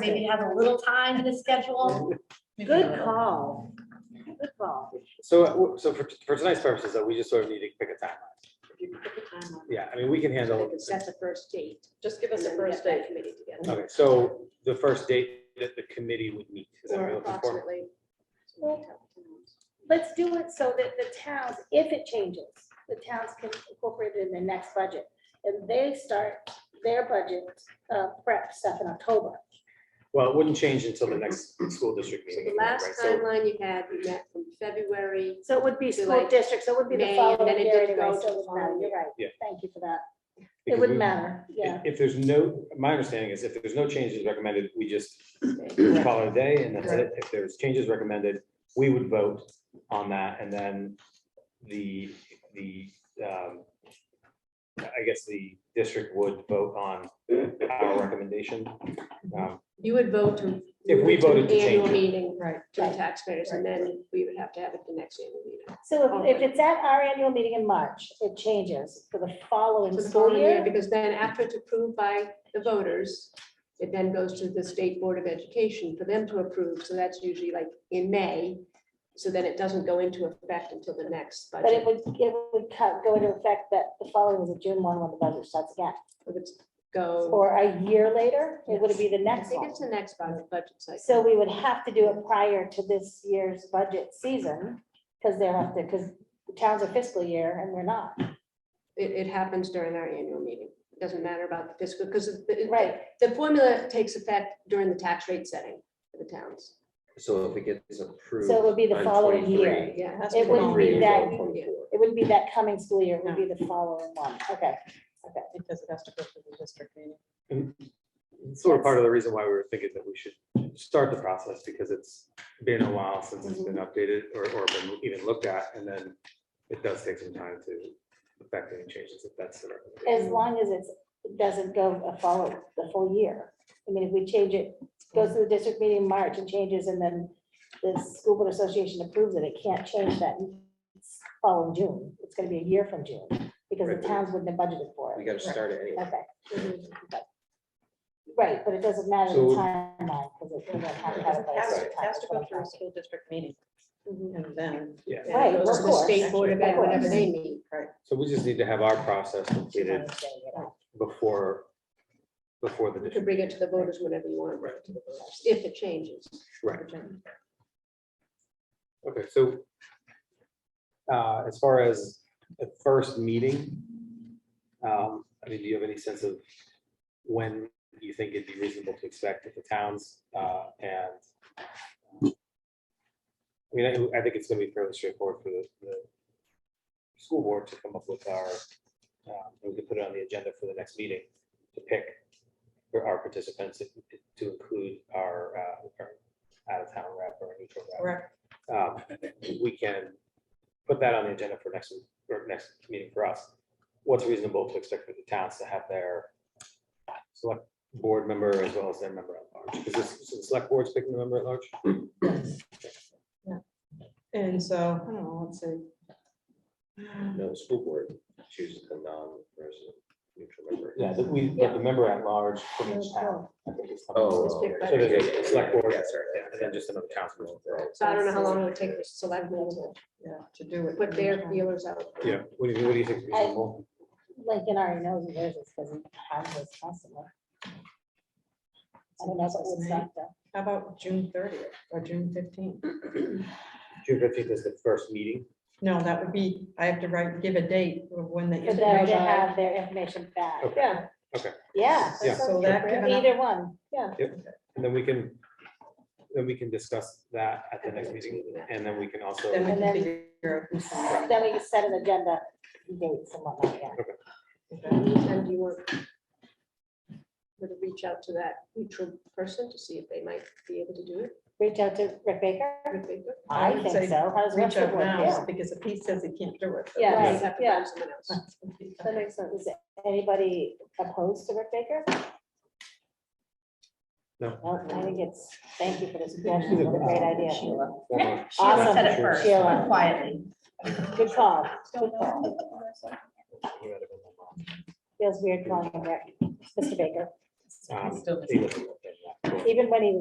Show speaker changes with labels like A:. A: maybe have a little time in the schedule.
B: Good call. Good call.
C: So, uh, w- so for, for tonight's purposes, though, we just sort of need to pick a timeline.
B: If you put the time on,
C: Yeah, I mean, we can
B: so
C: handle,
B: we can set the first date.
D: Just give us a
B: and then we
D: first
B: get
D: date.
B: that Committee together.
C: okay, so the first date that the committee would meet. Is that what
D: Or
C: you're looking for?
D: approximately,
E: Let's do it so that the towns, if it changes, the towns can incorporate it in their next budget. And they start their budget uh, prep stuff in October.
C: Well, it wouldn't change until the next school district
D: so
C: meeting.
D: the last
C: right? So-
D: timeline you had, you met from February,
E: So it would be
D: So
E: school
D: like
E: districts, so it would be the
D: May, and then
E: following
D: it
E: year
D: didn't go
E: anyway,
D: to
E: so it
D: the
E: wouldn't matter.
D: following
E: You're right.
C: Yeah.
E: Thank you for that. It
C: because
E: wouldn't
C: we-
E: matter,
C: if-
E: yeah.
C: If there's no, my understanding is if there's no changes recommended, we just
D: Right.
C: call it a day and that's it. If there's changes recommended, we would vote on that and then the, the, um, I guess the district would vote on our recommendation. Um,
D: you would vote to.
C: If we voted to change
D: Annual
C: it.
D: meeting. Right. To the
E: Right.
D: taxpayers, and then we would have to have it the next annual meeting.
E: So if, if it's at our annual meeting in March, it changes for the following
D: For the
E: school
D: following year,
E: year.
D: because then after it's approved by the voters, it then goes to the State Board of Education for them to approve, so that's usually like in May. So then it doesn't go into effect until the next
E: But it
D: budget,
E: would, it would cut- go into effect that the following is a June one when the budget starts again.
D: If it's go,
E: Or a year later, it would be the
D: I
E: next
D: think
E: one.
D: it's the next budget, budget cycle.
E: So we would have to do it prior to this year's budget season, because they're up there, because the town's a fiscal year and we're not.
D: It, it happens during our annual meeting. It Doesn't matter about the fiscal, because
E: Right.
D: the formula takes effect during the tax rate setting for the towns.
F: So if it gets approved.
E: So it would be the
F: on
E: following year.
F: 23,
D: Yeah.
E: It wouldn't be
F: 23,
E: that,
F: well,
D: Yeah.
F: 24.
E: it wouldn't be that coming school year, it would be the following one. Okay, okay.
B: Because it has to go through the district meeting.
C: It's Sort of part of the reason why we were thinking that we should start the process because it's been a while since it's been updated or, or been even looked at. And then it does take some time to affect any changes if that's the recommendation.
E: As long as it's, it doesn't go a follow, the full year. I mean, if we change it, goes to the district meeting in March and changes, and then the school board association approves it, it can't change that following June. It's gonna be a year from June, because
F: Right,
E: the
F: but-
E: towns wouldn't have budgeted for it.
F: We gotta start it anyway.
E: Okay.
B: Mm-hmm.
E: Okay. Right, but it doesn't matter
C: So-
E: the timeline, because it doesn't have to have it by a
B: Has
E: certain
B: to,
E: time,
B: has to go through a
E: 25.
B: school district meeting and then.
C: Yeah.
D: And it
E: Right,
D: goes to Mm-hmm.
E: of
D: the
E: course.
D: State Board of
E: Of
D: Ed,
E: course.
D: whatever they need.
C: So we just need to have our process completed
E: I'm saying it all.
C: before, before the
D: You can
C: district.
D: bring it to the voters whenever you want,
C: Right.
D: to the voters, if it changes.
C: Right. Okay, so uh, as far as the first meeting, um, I mean, do you have any sense of when you think it'd be reasonable to expect that the towns uh, and I mean, I- I think it's gonna be fairly straightforward for the, the school board to come up with our, um, we could put it on the agenda for the next meeting to pick for our participants to include our, uh, our out-of-town rep or neutral rep um, we can put that on the agenda for next, week or next meeting for us. What's reasonable to expect for the towns to have their select board member as well as their member at large? Is this, is the select board's picking the member at large?
B: And so, I don't know, let's see.
F: No, the school board chooses the non-resident neutral member.
C: Yeah, but we, but the member at large from each town. I think is something.
F: Oh.
D: It's
F: oh,
D: picked by
C: So
D: the-
C: there's a select board,
F: Yeah, sorry, yeah.
C: and then just another council.
D: So I don't know how long it would take the selectmen to
B: Yeah, to do it.
D: put their feelers out.
C: Yeah, what do you, what do you think is reasonable?
E: Lincoln already knows what theirs is, because he has his customer. I don't know if it would stop them.
B: How about June thirtieth or June fifteenth?
C: June fifteenth is the first meeting.
B: No, that would be, I have to write, give a date of when the.
E: For them to
B: information-
E: have their information back.
C: Okay.
B: Yeah.
E: Yeah.
C: Yeah.
B: So that given up-
E: Either one, yeah.
C: And then we can, then we can discuss that at the next meeting, and then we can also.
B: Then we
E: And
B: can
E: then-
B: figure out who's on.
E: Then we can set an agenda, dates and whatnot, yeah.
D: In the meantime, do you want would it reach out to that neutral person to see if they might be able to do it?
E: Reach out to Rick Baker?
D: Would they do it?
B: I
E: I
B: would
E: think
B: say
E: so. How does Rick
B: Reach out
E: work?
B: now,
E: Yeah.
B: because if he says he can't do it.
E: Yeah.
D: Or
E: Right.
D: you'd have to
E: Yeah.
D: find someone else.
E: That makes sense. Is anybody opposed to Rick Baker?
C: No.
E: No, I think it's, thank you for this suggestion. What a great idea.
C: Formal-
A: Sheila said it
C: Awesome.
A: first,
E: Uh, Sheila.
A: quietly.
E: Good call. Good call.
C: Um,
E: Feels weird calling him Rick. Mr. Baker.
C: Um, he wasn't looking at that.
E: even when he was